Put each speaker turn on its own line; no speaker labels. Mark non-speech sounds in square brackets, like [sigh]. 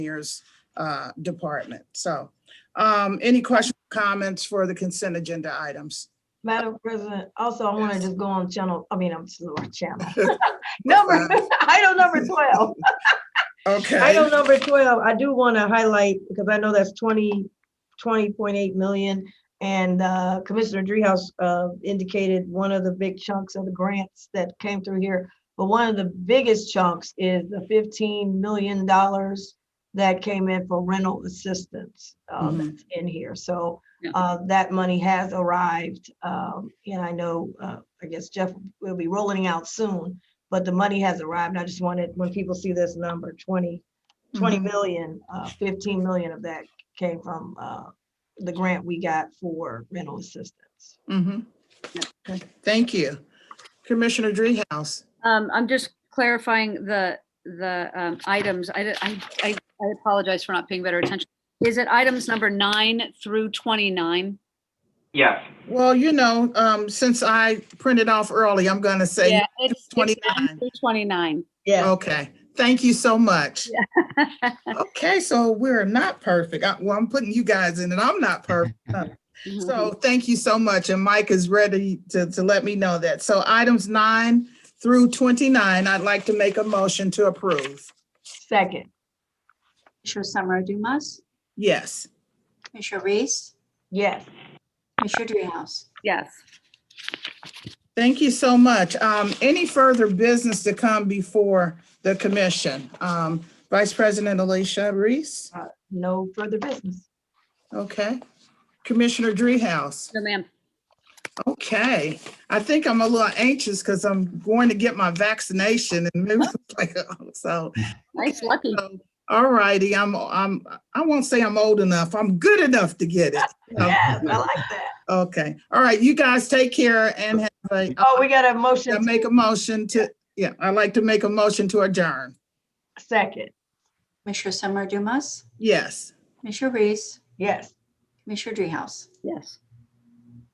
engineers uh, department. So um, any questions, comments for the consent agenda items?
Madam President, also, I want to
Yes.
just go on channel, I mean, I'm sorry,
[laughs]
channel. Number,
fine.
[laughs] item number 12.
Uh, Okay,
Item number 12, I do want to highlight, because I know that's 20, 20.8 million. And uh, Commissioner Dreehouse uh, indicated one of the big chunks of the grants that came through here. But one of the biggest chunks is the $15 million that came in for rental assistance uh,
Mhm.
that's in here. So
Yeah.
uh, that money has arrived. um, And I know, uh, I guess Jeff will be rolling out soon, but the money has arrived. I just wanted, when people see this number, 20, 20
Mhm.
million, uh, 15 million of that came from uh, the grant we got for rental assistance.
Mhm. Okay. thank you. Commissioner Dreehouse,
Um, I'm just clarifying the, the, um, items. I, di- I, I I apologize for not paying better attention. Is it items number nine through 29?
Yes,
well, you know, um, since I printed off early, I'm going to say,
Yeah, it's it's
29.
nine through [laughs] 29.
Yeah.
okay, thank you so much. Okay, so we're not perfect. I- Well, I'm putting you guys in and I'm not perfect. So thank you so much. And Mike is ready to, to let me know that. So items nine through 29, I'd like to make a motion to approve.
Second,
Commissioner Summer Dumas,
Yes.
Commissioner Reese,
yes.
Commissioner Dreehouse.
Yes.
Thank you so much. Um, any further business to come before the commission? Um, Vice President Alicia Reese?
No further business.
Okay. Commissioner Dreehouse?
No, ma'am.
Okay. I think I'm a little anxious because I'm going to get my vaccination and it was [laughs] like, oh, so.
Nice, lucky.
So, All righty, I'm, I'm, I won't say I'm old enough. I'm good enough to get it.
Yes, I like that.
Okay, all right, you guys take care and have a,
Oh, we got a
I
motion
make a motion to, yeah, I'd like to make a motion to adjourn.
second.
Commissioner Summer Dumas,
Yes.
Commissioner Reese,
Yes.
Commissioner Dreehouse.
Yes.